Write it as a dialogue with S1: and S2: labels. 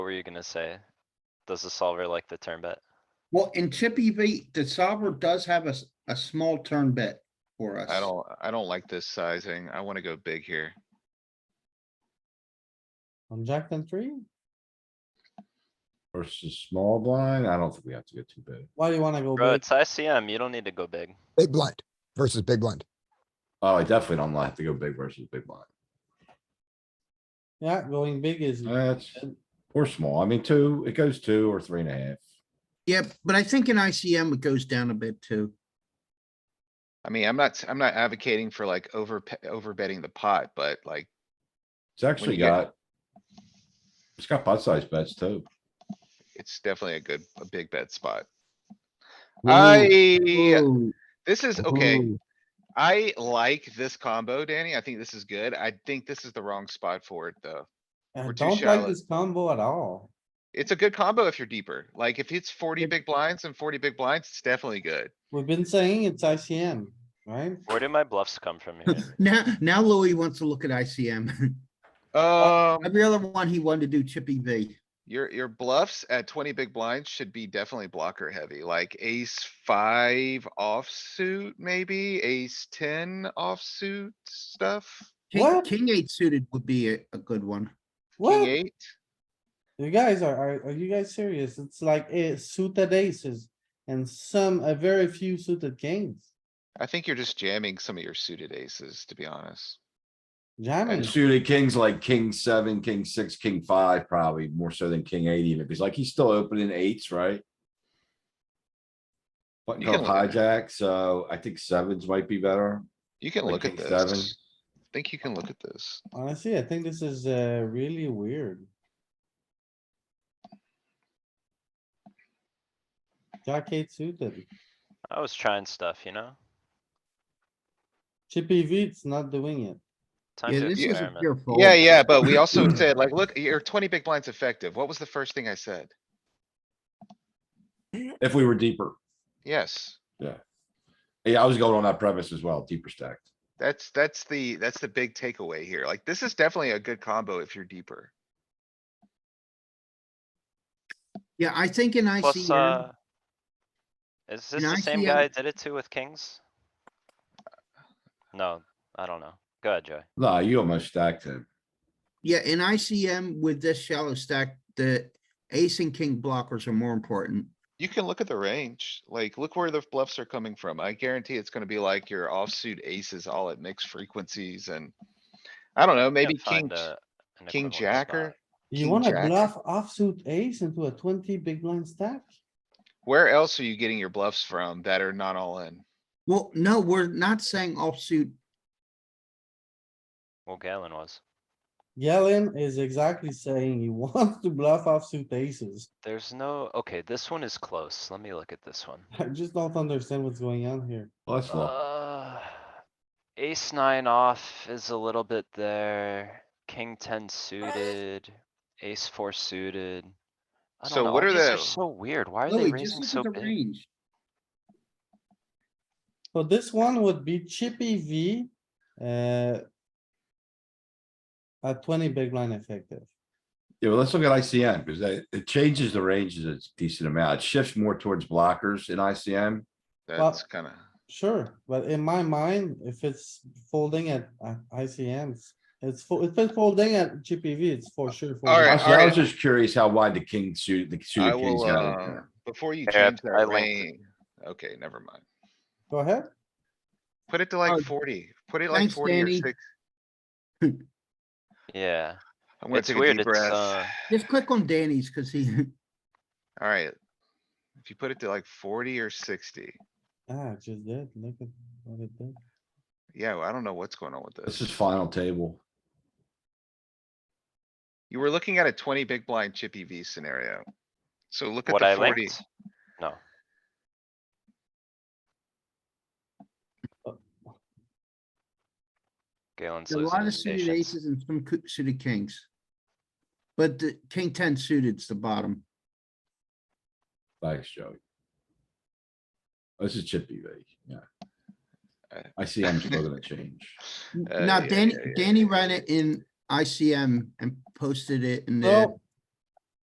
S1: What were you gonna say? Does the solver like the turn bet?
S2: Well, in Chippy V, the solver does have a, s- a small turn bet for us.
S3: I don't, I don't like this sizing. I wanna go big here.
S4: On jack ten three,
S5: versus small blind. I don't think we have to get too big.
S4: why do you wanna go
S1: Bro,
S4: big?
S1: it's ICM. You don't need to go big.
S6: Big blind versus big blind.
S5: Oh, I definitely don't like to go big versus big blind.
S4: Yeah, going big is,
S3: Uh,
S5: That's, or small. I mean, two, it goes two or three and a half.
S2: Yeah, but I think in ICM it goes down a bit too.
S3: I mean, I'm not, I'm not advocating for like over, pe- over betting the pot, but like,
S5: It's actually
S3: you get-
S5: got. It's got pot size bets too.
S3: it's definitely a good, a big bet spot.
S6: Ooh,
S3: I,
S2: Ooh,
S3: this is, okay,
S6: ooh.
S3: I like this combo, Danny. I think this is good. I think this is the wrong spot for it, though.
S4: I
S3: We're too
S4: don't like
S3: shallow.
S4: this combo at all.
S3: It's a good combo if you're deeper. Like, if it's forty
S4: Yep.
S3: big blinds and forty big blinds, it's definitely good.
S4: We've been saying it's ICM, right?
S1: Where do my bluffs come from here?
S2: Now, now Louis wants to look at ICM.
S3: Um,
S2: Every other one he wanted to do Chippy V.
S3: your, your bluffs at twenty big blinds should be definitely blocker heavy, like ace five offsuit, maybe ace ten offsuit stuff.
S2: King,
S4: What?
S2: king eight suited would be a, a good one.
S3: King
S4: What?
S3: eight,
S4: You guys are, are, are you guys serious? It's like a suited aces and some, a very few suited kings.
S3: I think you're just jamming some of your suited aces, to be honest.
S4: Jamming,
S5: And suited kings like king seven, king six, king five, probably more so than king eight even. He's like, he's still opening eights, right? Button
S3: You can
S5: called
S3: look
S5: hijack, so I think sevens might be better.
S3: You can
S5: Like
S3: look at
S5: king seven.
S3: this. I Think you can look at this.
S4: honestly, I think this is, uh, really weird. Jack eight suited,
S1: I was trying stuff, you know?
S4: chippy V, it's not doing it.
S1: Time
S2: Yeah,
S1: to
S2: this is a
S1: experiment.
S2: pure fold.
S3: Yeah, yeah, but
S5: Oh.
S3: we also said like, look, your twenty big blinds effective. What was the first thing I said?
S5: If we were deeper.
S3: Yes,
S5: Yeah, I was going on that premise as well, deeper stacked.
S3: that's, that's the, that's the big takeaway here. Like, this is definitely a good combo if you're deeper.
S2: Yeah, I think in
S1: Plus,
S2: ICM,
S1: uh. Is this
S2: In
S1: the same
S2: ICM
S1: guy I did it to with kings? No, I don't know. Go ahead, Joey.
S5: No, you almost stacked him.
S2: yeah, in ICM with this shallow stack, the ace and king blockers are more important.
S3: You can look at the range, like, look where the bluffs are coming from. I guarantee it's gonna be like your offsuit aces all at mixed frequencies and. I don't know, maybe
S1: Can't find
S3: king, j-
S1: a- an
S3: king
S1: equivalent
S3: jacker.
S1: spot.
S4: You
S3: King
S4: wanna
S3: jack.
S4: bluff offsuit ace into a twenty big blind stack?
S3: where else are you getting your bluffs from that are not all in?
S2: Well, no, we're not saying offsuit.
S1: Well, Galen was.
S4: Yellen is exactly saying he wants to bluff offsuit aces.
S1: There's no, okay, this one is close. Let me look at this one.
S4: I just don't understand what's going on here.
S5: Let's look.
S1: Uh, ace nine off is a little bit there, king ten suited, ace four suited. I don't
S3: So
S1: know,
S3: what
S1: all
S3: are
S1: these
S3: the-
S1: So weird, why are they
S2: Louis, just
S1: raising so
S2: look at the
S1: big?
S2: range.
S4: So this one would be chippy V, uh. At twenty big blind effective.
S5: Yeah, well, let's look at ICM because that, it changes the ranges a decent amount. It shifts more towards blockers in ICM.
S4: Well-
S3: That's kinda,
S4: Sure, but in my mind, if it's folding at uh, ICMs, it's, fo- if it's folding at GPV, it's for sure. folding.
S3: All right,
S5: Actually, I was
S3: alright.
S5: just curious how wide the king suit, the
S3: I
S5: suited kings
S3: will,
S5: got in
S3: uh,
S5: there.
S3: before you
S1: Yeah,
S3: change
S1: I
S3: that
S1: linked
S3: range. Okay, never mind.
S4: Go ahead.
S3: Put it to
S2: Oh,
S3: like forty, put it like
S2: thanks,
S3: forty or
S2: Danny.
S3: six.
S1: Yeah,
S3: I'm gonna
S1: it's
S3: take a
S1: weird,
S3: deep
S1: it's,
S3: breath.
S1: uh,
S2: Just click on Danny's because he,
S3: Alright. If you put it to like forty or sixty,
S4: Ah, it just did. Look at what it did.
S3: yeah, well, I don't know what's going on with
S5: This
S3: this.
S5: is final table.
S3: You were looking at a twenty big blind chippy V scenario. So look at
S1: what I
S3: the forty.
S1: linked? No, Galen's
S2: Uh, a
S1: losing
S2: lot of
S1: his
S2: suited
S1: patience.
S2: aces and some coo- suited kings. But the king ten suited's the bottom.
S5: Thanks, Joey. This is chippy V, yeah.
S3: Uh,
S5: ICM's still gonna change.
S2: N-
S3: Uh,
S2: Now
S3: yeah,
S2: Danny,
S3: yeah, yeah,
S2: Danny
S3: yeah,
S2: ran it in ICM and posted it in the
S4: No,